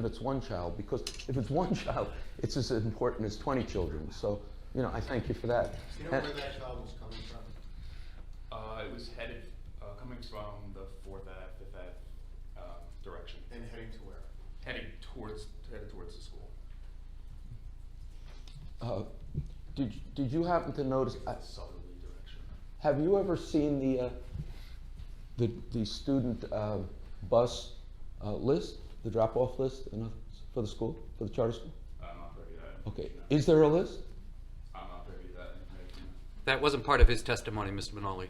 if it's one child, because if it's one child, it's as important as 20 children. So, you know, I thank you for that. You know And- where that child was coming from? Uh, it was headed, uh, coming from the Fourth Ave, Fifth Ave, um, direction, And heading to where? heading towards, headed towards the school. uh, Did did you happen to notice, I- Southerly direction. have you ever seen the, uh, the the student uh, bus uh, list, the drop-off list in a- for the school, for the charter school? I'm not privy to that. Okay, information. is there a list? I'm not privy to that information. That wasn't part of his testimony, Mr. Manoli.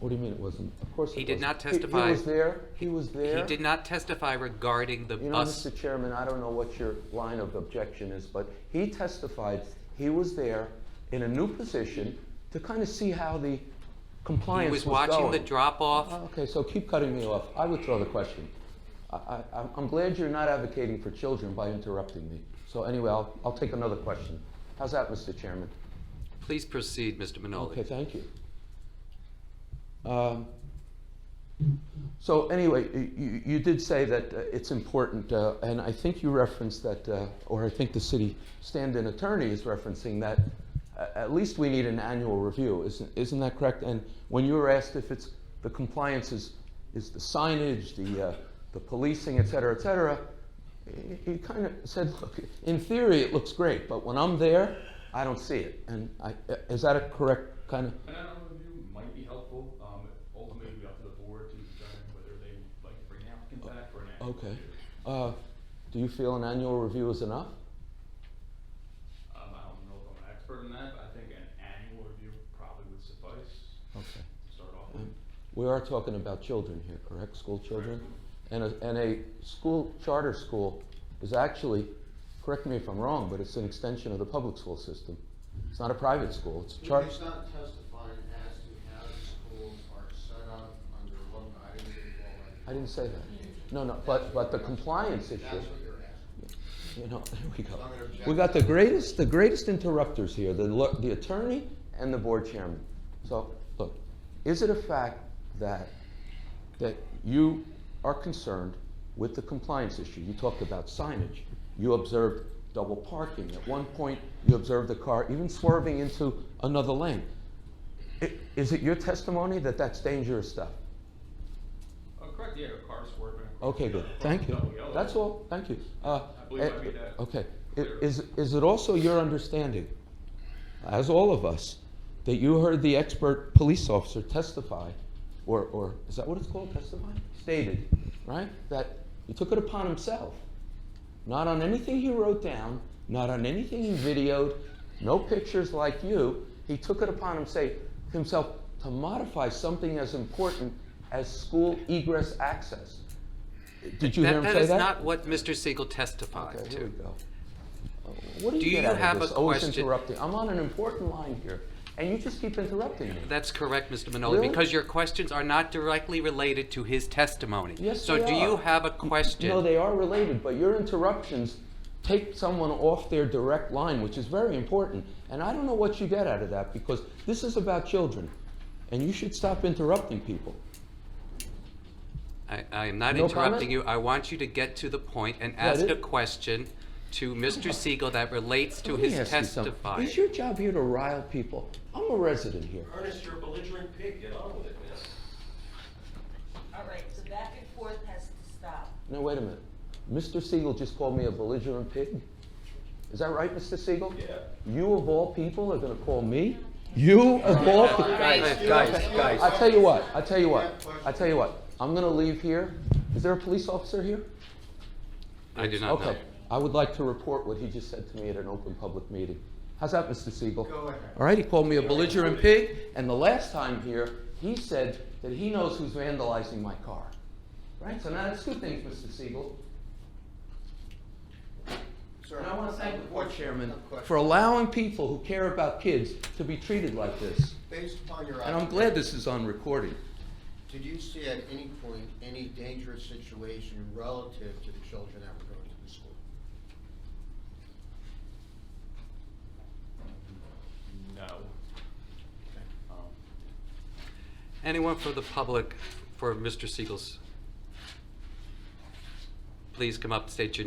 What do you mean it wasn't? Of course it He did wasn't. not He testify. was there, he was there. He did not testify regarding the You know, bus. Mr. Chairman, I don't know what your line of objection is, but he testified he was there in a new position to kind of see how the He compliance was going. was Uh, watching the drop-off. Okay, so keep cutting me off. I withdraw the question. I, I, I'm- I'm glad you're not advocating for children by interrupting me. So anyway, I'll, I'll take another question. How's that, Mr. Chairman? Please proceed, Mr. Okay, Manoli. thank you. Um, So anyway, y- you, you did say that uh, it's important, uh, and I think you referenced that, uh, or I think the city stand-in attorney is referencing that a- at least we need an annual review, isn't, isn't that correct? And when you were asked if it's, the compliance is, is the signage, the, uh, the policing, et cetera, et cetera, y- you kind of said, look, in theory, it looks great, but when I'm there, I don't see it. And I, is that a correct kind of, An annual review might be helpful, um, ultimately it'd be up to the board to determine whether they would like to bring an applicant back for an annual Oh, Okay. review. Uh, Do you feel an annual review is enough? Um, I don't know if I'm an expert in that, but I think an annual review probably would suffice Okay. to start off with. We are talking about children here, correct? School children? And a, and a school, charter school is actually, correct me if I'm wrong, but it's an extension of the public school system. It's not a private school, it's a He charter. was not testifying as to how the schools are set up under what guidance and all that. I didn't say that. No, no, but, but the compliance issue, That's what you're asking. you know, there we go. I'm gonna object. We got the greatest, the greatest interrupters here, the, lo- the attorney and the board chairman. So, look, is it a fact that, that you are concerned with the compliance issue? You talked about signage, you observed double parking, at one point, you observed a car even swerving into another lane. I- Is it your testimony that that's dangerous stuff? Uh, correct, yeah, a car swerving. across Okay, the- good, across thank the you. double yellow. That's all, thank you. I believe I made that Okay, I- clear. is, is it also your understanding, as all of us, that you heard the expert police officer testify, or, or, is that what it's called, testify? Stated, right, that he took it upon himself, not on anything he wrote down, not on anything he videoed, no pictures like you, he took it upon him, say, himself to modify something as important as school egress access. Did you hear him That, say that that? is not what Mr. Siegel testified Okay, here we to. go. Uh, What do you Do get you out of have this? a Always question? interrupting. I'm on an important line here, and you just keep interrupting me. That's correct, Mr. Manoli, Really? because your questions are not directly related to his testimony. Yes, So they do you are. have a No, question? they are related, but your interruptions take someone off their direct line, which is very important. And I don't know what you get out of that, because this is about children, and you should stop interrupting people. I, I am not No comment? interrupting you. I want you to get to the point and That ask is- a question to Mr. Siegel that relates to Let me his ask you something. testifying. Is your job here to rile people? I'm a resident here. Ernest, you're a belligerent pig, get on with it, man. All right, the back and forth has to stop. Now, wait a minute. Mr. Siegel just called me a belligerent pig? Is that right, Mr. Siegel? Yeah. You of all people are gonna call me? You of all people? Guys, guys, guys. I tell you what, I tell you You what, have questions. I tell you what. I'm gonna leave here. Is there a police officer here? I do not know. Okay. I would like to report what he just said to me at an open public meeting. How's that, Mr. Siegel? Go ahead. All right, he called me a belligerent pig, and the last time here, he said that he knows who's vandalizing my car. Right, so now that's two things, Mr. Siegel. Sir, And I want to thank the board chairman Of course. for allowing people who care about kids to be treated like this. Based upon your. And I'm glad this is on recording. Did you see at any point any dangerous situation relative to the children that were going to the school? No. Um, Anyone for the public for Mr. Siegel's please come up, state your